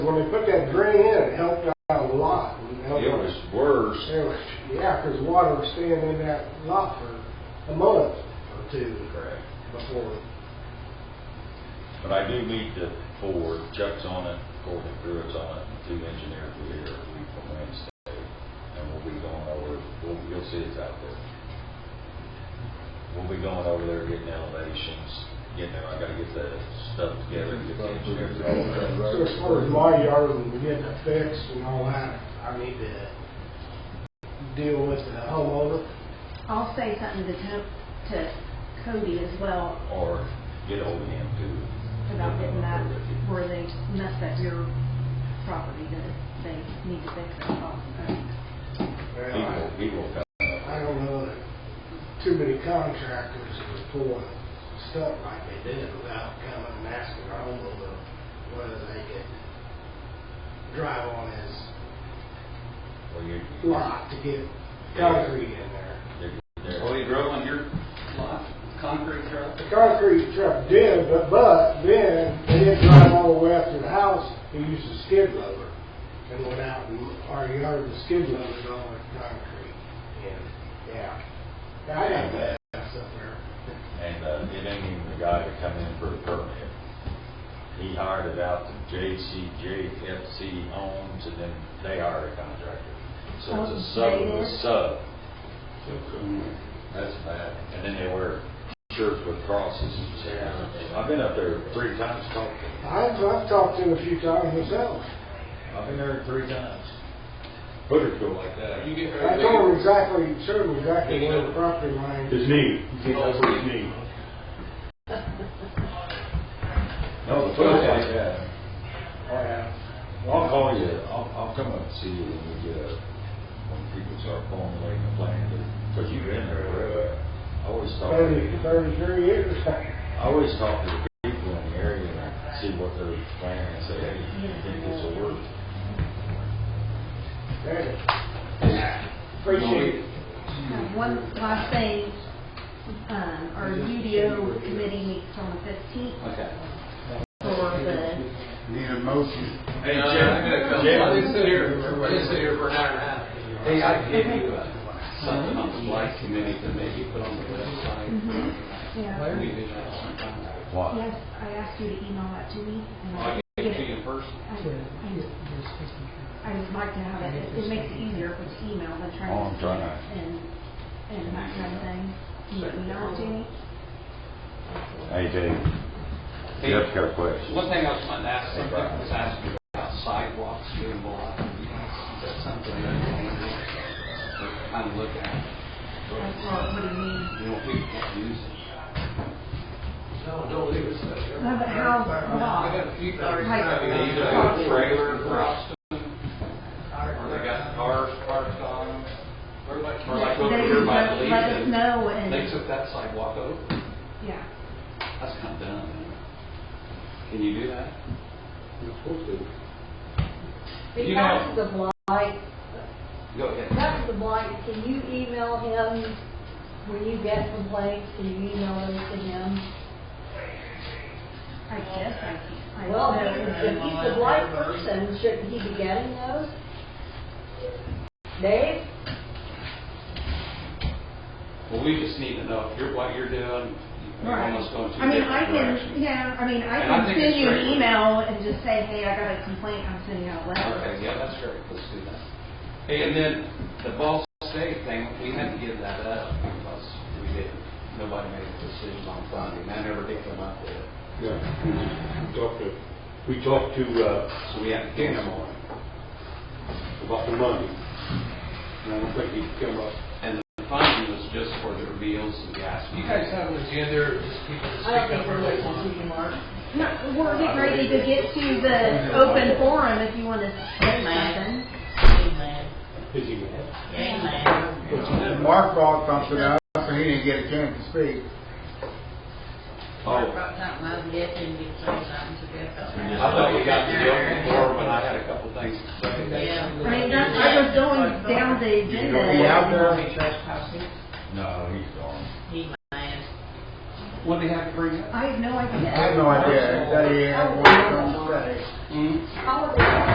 when they put that drain in, it helped out a lot. and helped It out- was worse. It was, yeah, because water was staying in that lot for a month or two Correct. before. But I do meet the board, Chuck's on it, Corbin Druitt's on it, and two engineers will be here a week from Wednesday, and we'll be going over, we'll, you'll see it's out there. We'll be going over there, getting elevations, getting there, I gotta get the stuff together, get the engineers all that. So as far as my yard and getting it fixed and all that, I need to deal with the homeowner. I'll say something to, Co- to Cody as well Or get hold of him too. about getting that where they messed up your property that they need to fix that problem. Well, He will, he will come I up. don't know that too many contractors are pulling stuff like they did without coming and asking our homeowner whether they could drive on his Well, you- you- lot to get concrete in there. there- Oh, you drove on your lot, concrete truck? The concrete truck did, but, but then they didn't drive all the way up to the house, they used a skid loader and went out and, our yard, the skid loader all the concrete. And, yeah, I had that up there. And uh, it ain't even the guy to come in for a permit. He hired it out to JCJFC Homes, and then they hired a contractor. So it's a sub of a sub. That's bad. And then they wear shirts with crosses. I've been up there three times talking. I've, I've talked to him a few times myself. I've been there three times. Hooters go like that. You get I very told him big. exactly, showed him exactly where the property line. His knee, you can't go for his knee. No, the foot's like that. Oh, Yeah. Well, I'll call you, I'll, I'll come up and see you when we get, a- when people start formulating a plan, because you've been there, uh, I always talk, Thirty, to- thirty-three years. I always talk to people in the area and I see what they're planning and say, hey, you think this will work? Appreciate it. Um, One last thing, um, our UDO committee meets on the fifteenth Okay. for the Need a motion. Hey, Jim, I gotta come, I didn't sit here, I didn't sit here for an hour and a half. Hey, I gave you uh, something on the light committee to maybe put on the website. Mhm. Yeah. Larry did that one time. Why? Yes, I asked you to email that to me. and Well, I gave it to you in person. I I would like to have it, it makes it easier with email than trying to. Oh, I'm trying to- And, and that kind of thing. Can you email it to me? Hey, Dave, Hey, Jeff's got a question. One thing I was wanting to ask, something was asking about sidewalks being blocked. Is that something that you kind of look at? Like, Well, what do you mean? You know, people can't use it. No, don't leave us there. No, but how, block? few Like- These are trailer crops. Or they got cars parked on them. Or like, or like over They here by let- the let us leaves. know and, They took that sidewalk over. yeah. That's kind of dumb. Can you do that? You know- Back to the blight, Go ahead. back to the blight, can you email him, when you get complaints, can you email those to him? I guess I can. I Well, don't if know. he's the blight person, shouldn't he be getting those? Dave? Well, we just need to know if you're, what you're doing. You're Right. almost going to a I mean, different I direction. can, yeah, I mean, I And I can think send it's you an great. email and just say, hey, I got a complaint, I'm sending out a letter. Okay, yeah, that's great, let's do that. Hey, and then the Ball State thing, we had to give that up because we didn't, nobody made a decision on funding, that never did come up with it. Yeah. We talked to, we talked to, uh, So we had to Dan cancel. on it about the money. And I don't think he'd come up. And the funding was just for the meals and gas. You guys have an agenda or just people I don't think we're listening to you, Mark. No, we're getting ready to get to the open forum if you want to say something. Is he mad? Mark brought something up, so he didn't get a chance to speak. Oh, Brought something up, yes, and you said something to Jeff about I that. thought we got to the open forum, but I had a couple things to say. Yeah. I mean, that's, I was going down the He agenda. out there, Trespassing. No, he's gone. He mad. What do you have to bring up? I have no idea. I have no idea, that he had one to say. Hmm? How would they?